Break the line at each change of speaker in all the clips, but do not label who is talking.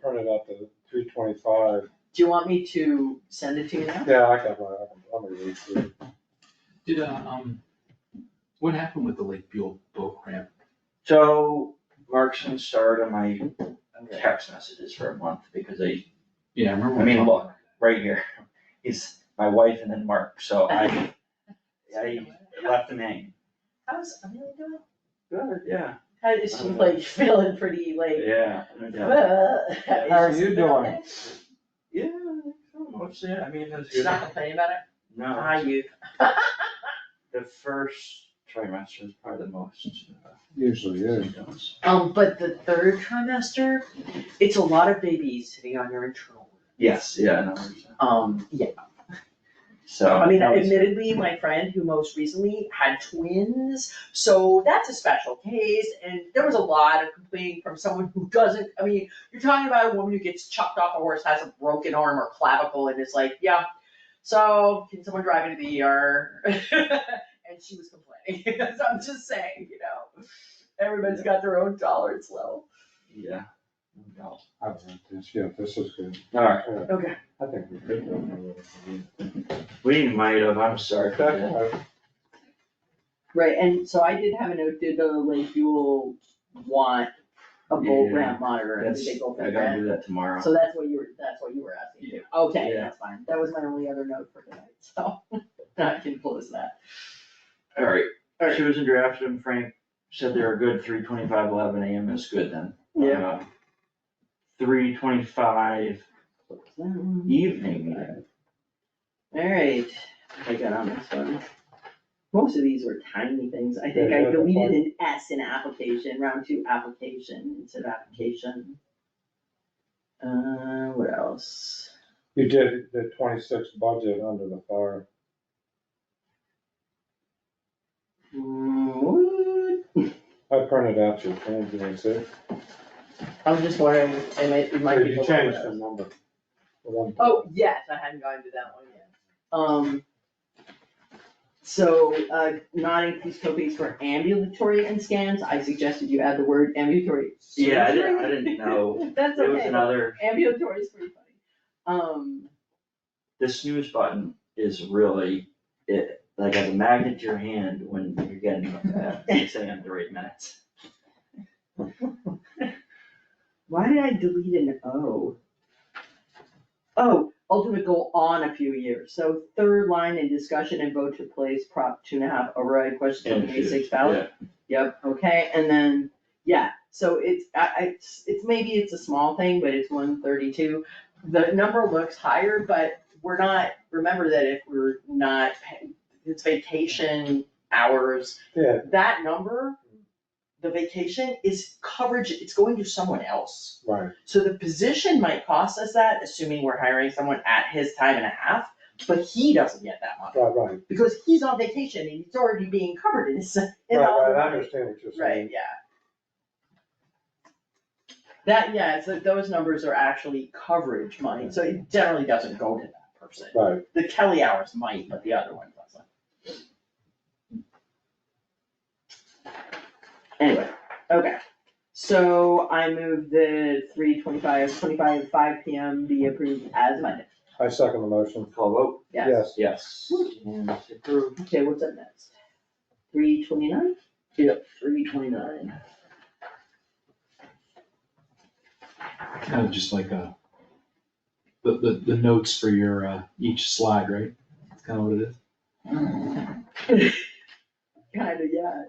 printed out the three twenty-five,
Do you want me to send it to you now?
yeah, I got my, I'm gonna read through. it.
Did, uh, um, what happened with the Lake Buell boat ramp?
Joe Markson starred on my text messages for a month because I,
Yeah, I remember.
I mean,
when-
look, right here, is my wife and then Mark, so I, I left him hanging.
How's Emily doing?
Good, yeah.
How is she like feeling pretty like?
Yeah, no doubt.
How
How are you doing?
Yeah, I don't know, it's, yeah, I mean, it's
She's
good.
not complaining about it?
No,
Ah, you.
the first trimester is probably the most. uh,
Usually is.
symptoms.
Um, but the third trimester, it's a lot of babies sitting on your internal.
Yes, yeah, no, it's-
Um, yeah,
so.
I mean,
that was-
admittedly, my friend who most recently had twins, so that's a special case, and there was a lot of complaining from someone who doesn't, I mean, you're talking about a woman who gets chucked off a horse, has a broken arm or clavicle, and it's like, yeah, so can someone drive me to the ER? And she was complaining, so I'm just saying, you know, everybody's got their own tolerance level.
Yeah. no doubt.
I don't know, this- Yeah, this is good.
All right,
Yeah,
Okay.
I think we could. go for it.
we might have, I'm sorry. for that.
Okay,
Right, and so I did have a note, did the Lake Buell want a bull
Yeah,
ramp monitor, and
That's,
did they go for
I
that?
gotta do that tomorrow.
So that's what you were, that's what you were asking,
Yeah.
okay,
Yeah.
that's fine, that was my only other note for tonight, so, I can close that.
Alright,
All right.
Susan drafted them, Frank said they were good, three twenty-five, eleven AM is good then. Uh,
Yeah.
Three twenty-five
Mm-hmm.
evening, meeting.
Alright, I got on this one. Most of these were tiny things, I think I
Yeah, that's fine.
deleted an S in application, round two application instead of application. Uh, what else?
You did the twenty-six budget under the fire.
Mm, what?
I printed out your change, you can see.
I'm just wondering, it might, it might be.
You
below
changed the
those.
number. The one-
Oh, yes, I hadn't gone to that one yet. Um. So, uh, not increased copays for ambulatory and scans, I suggested you add the word ambulatory.
Yeah, I didn't, I
surgery.
didn't know,
That's
it was
okay,
another,
ambulatory is pretty funny. Um,
the snooze button is really, it, like as a magnet to your hand when you're getting up at six AM to eight minutes.
why did I delete an O? Oh, ultimate goal on a few years, so third line in discussion and vote to place prop two and a half override question on the May sixth ballot.
Yeah.
Yep, okay, and then, yeah, so it's, I, I, it's, it's- maybe it's a small thing, but it's one thirty-two. The number looks higher, but we're not, remember that if we're not, pa- it's vacation hours,
Yeah,
that number, the vacation is coverage, it's going to someone else.
right,
So the position might cost us that, assuming we're hiring someone at his time and a half, but he doesn't get that much,
right, right,
because he's on vacation and he's already being covered in his, in
right,
all the
right, I
money.
understand what you're
Right,
saying.
yeah. That, yeah, so those numbers are actually coverage money, so it generally doesn't go to that person.
Right,
The Kelly hours might, but the other one doesn't. Anyway, okay, so I move the three twenty-five, twenty-five, five P M be approved as amended,
I second the motion.
Call vote,
yes.
yes, and it's approved.
Okay, what's up next? Three twenty-nine? Yep, three twenty-nine.
Kind of just like a, the, the, the notes for your, uh, each slide, right? That's kind of what it is.
Kinda, yeah.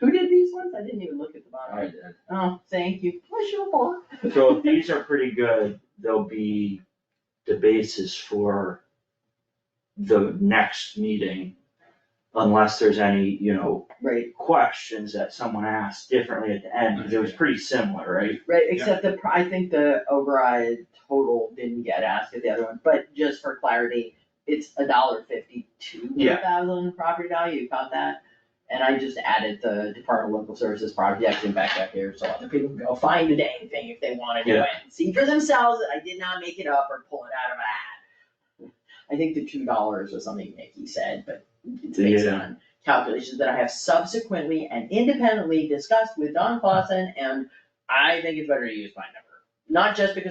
Who did these ones? I didn't even look at the bottom.
I did.
Oh, thank you. Push your ball.
So if these are pretty good, they'll be the basis for the next meeting. Unless there's any, you know,
Right,
questions that someone asked differently at the end, because it was pretty similar, right?
right, except the, pri- I think the override total didn't get asked at the other one, but just for clarity, it's a dollar fifty-two
Yeah.
thousand property value, you caught that? And I just added the Department of Local Services project and back up here, so other people can go find the dang thing if they wanna do it.
Yeah.
See for themselves, that I did not make it up or pull it out of a hat. I think the two dollars was something Nikki said, but it's based
Yeah.
on calculations that I have subsequently and independently discussed with Don Clausen, and I think it's better to use my number. not just because